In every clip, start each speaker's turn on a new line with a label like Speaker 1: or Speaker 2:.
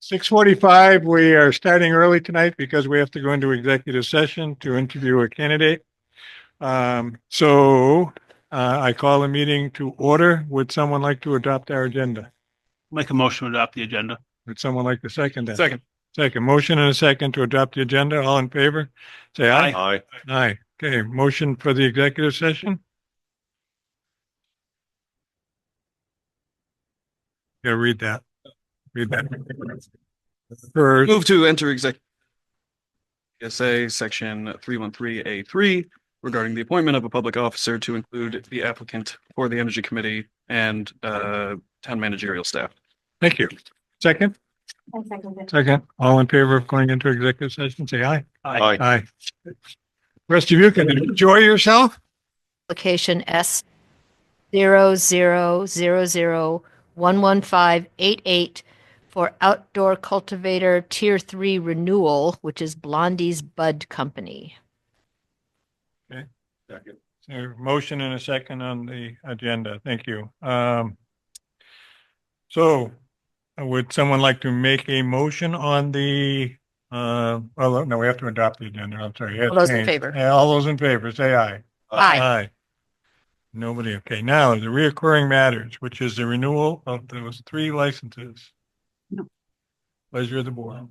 Speaker 1: Six forty-five, we are starting early tonight because we have to go into executive session to interview a candidate. Um, so, uh, I call the meeting to order. Would someone like to adopt our agenda?
Speaker 2: Make a motion to adopt the agenda.
Speaker 1: Would someone like to second that? Second, motion and a second to adopt the agenda. All in favor? Say aye.
Speaker 3: Aye.
Speaker 1: Aye. Okay, motion for the executive session? Yeah, read that. Read that. For,
Speaker 3: Move to enter exec. PSA section three one three A three regarding the appointment of a public officer to include the applicant for the energy committee and uh town managerial staff.
Speaker 1: thank you. Second,
Speaker 4: I second it.
Speaker 1: second, all in favor of going into executive session, say aye.
Speaker 2: Aye.
Speaker 1: Aye. Rest of you can enjoy yourself.
Speaker 5: application S zero zero zero zero one one five eight eight for outdoor cultivator tier three renewal, which is Blondie's Bud Company.
Speaker 1: So motion and a second on the agenda. Thank you. Um, so would someone like to make a motion on the, uh, well, no, we have to adopt the agenda. I'm sorry.
Speaker 5: All those in
Speaker 1: Change.
Speaker 5: favor.
Speaker 1: Yeah, All those in favor, say aye. Uh-huh.
Speaker 5: Aye.
Speaker 1: Nobody. Okay, now the reoccurring matters, which is the renewal of those three licenses.
Speaker 4: No.
Speaker 1: Pleasure of the board.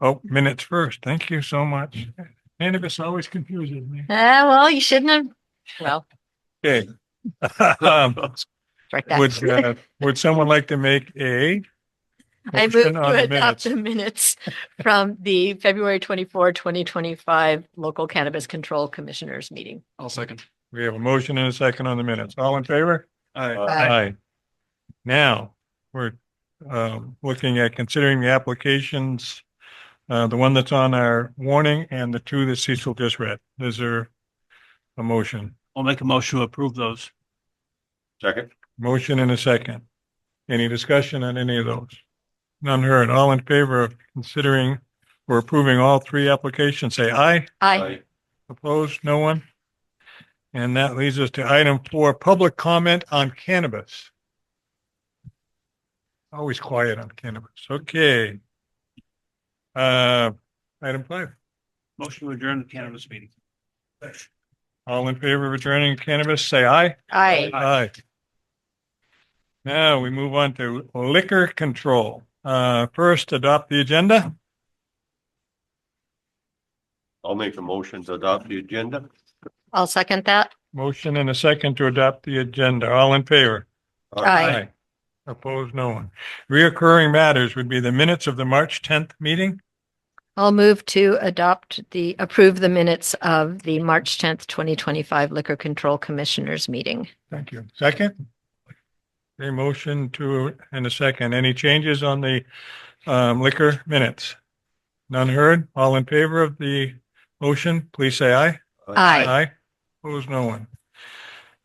Speaker 1: Oh, minutes first. Thank you so much. Cannabis always confuses me.
Speaker 5: Ah, well, you shouldn't have, well,
Speaker 1: Okay. Um,
Speaker 5: strike
Speaker 1: Would,
Speaker 5: that.
Speaker 1: uh, would someone like to make a?
Speaker 5: I move
Speaker 1: motion on
Speaker 5: to
Speaker 1: the
Speaker 5: adopt
Speaker 1: minutes?
Speaker 5: the minutes from the February 24, 2025 Local Cannabis Control Commissioners Meeting.
Speaker 3: I'll second.
Speaker 1: We have a motion and a second on the minutes. All in favor?
Speaker 3: Aye.
Speaker 5: Aye.
Speaker 1: Now, we're um, looking at considering the applications, uh, the one that's on our warning and the two that Cecil just read. Is there a motion?
Speaker 2: I'll make a motion to approve those.
Speaker 3: Second.
Speaker 1: Motion and a second. Any discussion on any of those? None heard. All in favor of considering or approving all three applications, say aye.
Speaker 5: Aye.
Speaker 1: Opposed? No one? And that leads us to item four, public comment on cannabis. Always quiet on cannabis. Okay. Uh, item five,
Speaker 2: Motion to adjourn the cannabis meeting.
Speaker 1: all in favor of returning cannabis, say aye.
Speaker 5: Aye.
Speaker 1: Aye. Now we move on to liquor control. Uh, first, adopt the agenda.
Speaker 6: I'll make a motion to adopt the agenda.
Speaker 5: I'll second that.
Speaker 1: Motion and a second to adopt the agenda. All in favor?
Speaker 5: Aye.
Speaker 1: Opposed, no one. Reoccurring matters would be the minutes of the March tenth meeting.
Speaker 5: I'll move to adopt the, approve the minutes of the March 10th, 2025 Liquor Control Commissioners Meeting.
Speaker 1: Thank you. Second? A motion to, and a second. Any changes on the um, liquor minutes? None heard? All in favor of the motion, please say aye.
Speaker 5: Aye.
Speaker 1: Opposed, no one.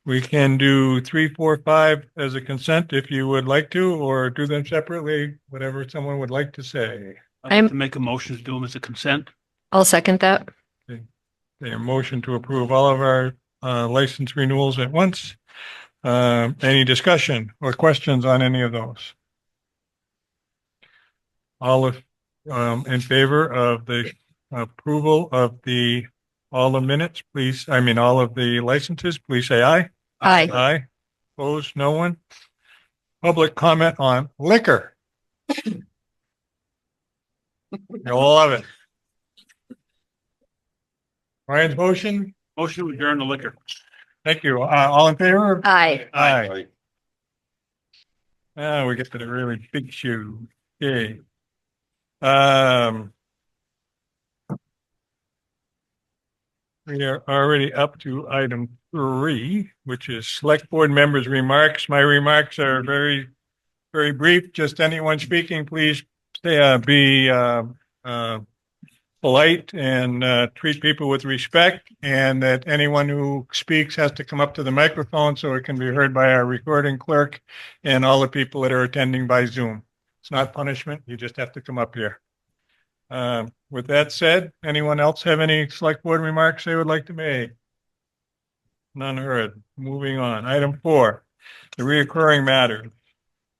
Speaker 1: We can do three, four, five as a consent if you would like to, or do them separately, whatever someone would like to say.
Speaker 2: I'd like
Speaker 5: I'm-
Speaker 2: to make a motion to do them as a consent.
Speaker 5: I'll second that.
Speaker 1: A motion to approve all of our uh, license renewals at once. Um, Any discussion or questions on any of those? All of, um, in favor of the approval of the, all the minutes, please, I mean, all of the licenses, please say aye.
Speaker 5: Aye.
Speaker 1: Aye. Opposed, no one? Public comment on liquor. You'll love it. Ryan's motion,
Speaker 2: Motion to adjourn the liquor.
Speaker 1: thank you. Uh, all in favor?
Speaker 5: Aye.
Speaker 1: Aye.
Speaker 6: Aye.
Speaker 1: Now Oh, we get to the really big shoe. Okay. Um. We are already up to item three, which is select board members' remarks. My remarks are very, very brief. Just anyone speaking, please stay, uh, be, uh, uh, polite and, uh, treat people with respect and that anyone who speaks has to come up to the microphone so it can be heard by our recording clerk and all the people that are attending by Zoom. It's not punishment. You just have to come up here. Um, with that said, anyone else have any select board remarks they would like to make? None heard. Moving on. Item four, the reoccurring matter.